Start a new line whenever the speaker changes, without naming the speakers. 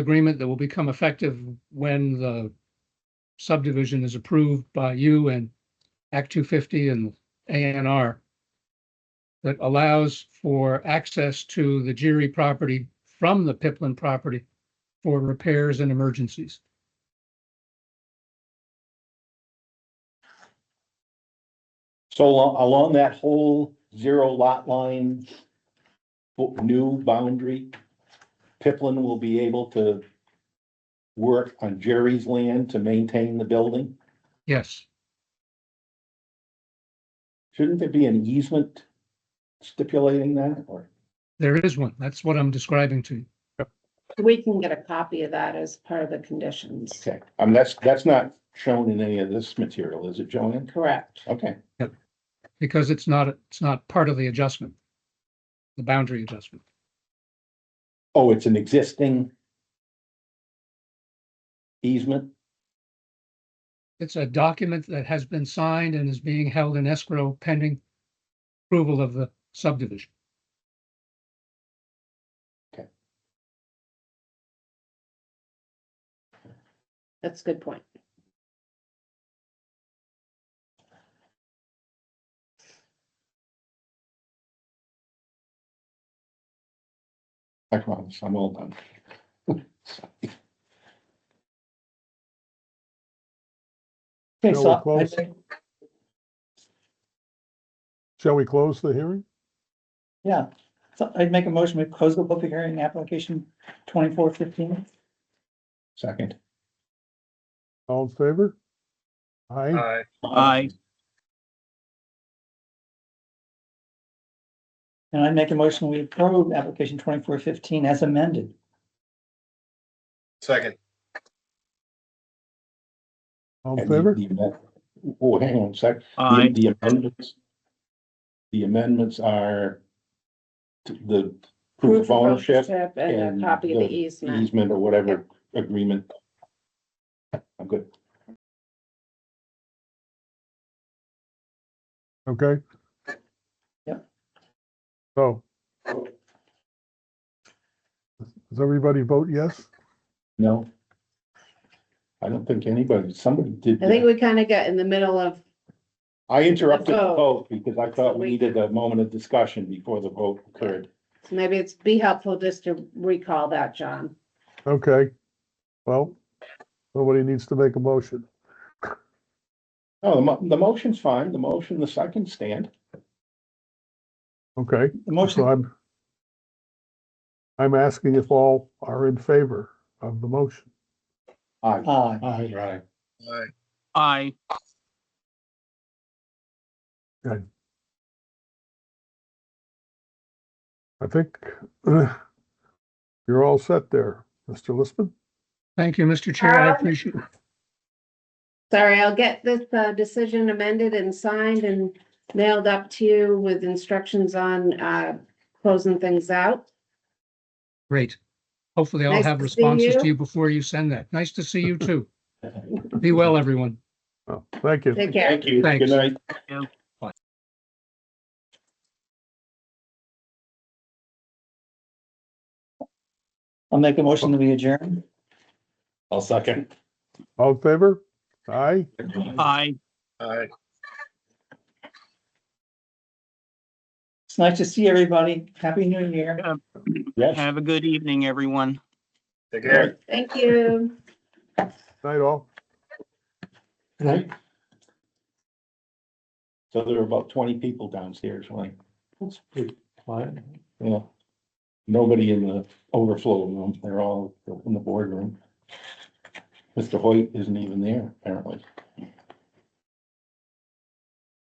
agreement that will become effective when the subdivision is approved by you and Act two fifty and A N R that allows for access to the Geary property from the Piplin property for repairs and emergencies.
So along, along that whole zero lot line, bo- new boundary, Piplin will be able to work on Jerry's land to maintain the building?
Yes,
Shouldn't there be an easement stipulating that or?
there is one. That's what I'm describing to you.
We can get a copy of that as part of the conditions,
Okay, I mean, that's, that's not shown in any of this material, is it, Joanne?
correct?
Okay,
because it's not, it's not part of the adjustment. The boundary adjustment.
oh, it's an existing easement?
It's a document that has been signed and is being held in escrow pending approval of the subdivision.
That's a good point.
I promise, I'm all done. Okay,
Shall we
so I
close?
think-
Shall we close the hearing?
Yeah, so I'd make a motion, we close the public hearing, application twenty-four fifteen.
Second.
All in favor? Aye,
Aye.
Aye,
And I'd make a motion, we approve application twenty-four fifteen as amended.
Second.
all in
And the-
favor?
the amend- Oh, hang on a sec. The-
aye,
The amendments. The amendments are t- the proof of ownership
And
and
a copy of the
the
easement.
easement or whatever agreement. I'm good.
Okay.
Yep.
So. Does everybody vote yes?
No. I don't think anybody, somebody did.
I think we kind of got in the middle of,
I interrupted the
Let's
vote because I thought we
We-
needed a moment of discussion before the vote occurred.
maybe it's be helpful just to recall that, John.
Okay. Well, nobody needs to make a motion.
No, the mo- the motion's fine. The motion, the second stand.
Okay,
The motion,
so I'm. I'm asking if all are in favor of the motion.
Aye.
aye.
Aye. Right.
Aye.
aye.
I think uh, you're all set there, Mr. Listman.
Thank you, Mr. Chair. I
Um,
appreciate,
Sorry, I'll get this uh, decision amended and signed and mailed up to you with instructions on uh, closing things out.
great. Hopefully I'll
Nice
have
to see
responses
you.
to you before you send that. Nice to see you too. Be well, everyone.
Oh, Thank you.
Take care.
Thank you. Good
Thanks.
night.
I'll make a motion that we adjourn.
I'll second.
All in favor? Aye.
Aye.
Aye.
It's nice to see everybody. Happy New Year.
Yes.
Have a good evening, everyone.
Take
All right.
care.
Thank you.
Night all.
Right. So there were about twenty people downstairs, like. That's pretty quiet. Yeah. Nobody in the overflow room, they're all in the boardroom. Mr. Hoyt isn't even there, apparently.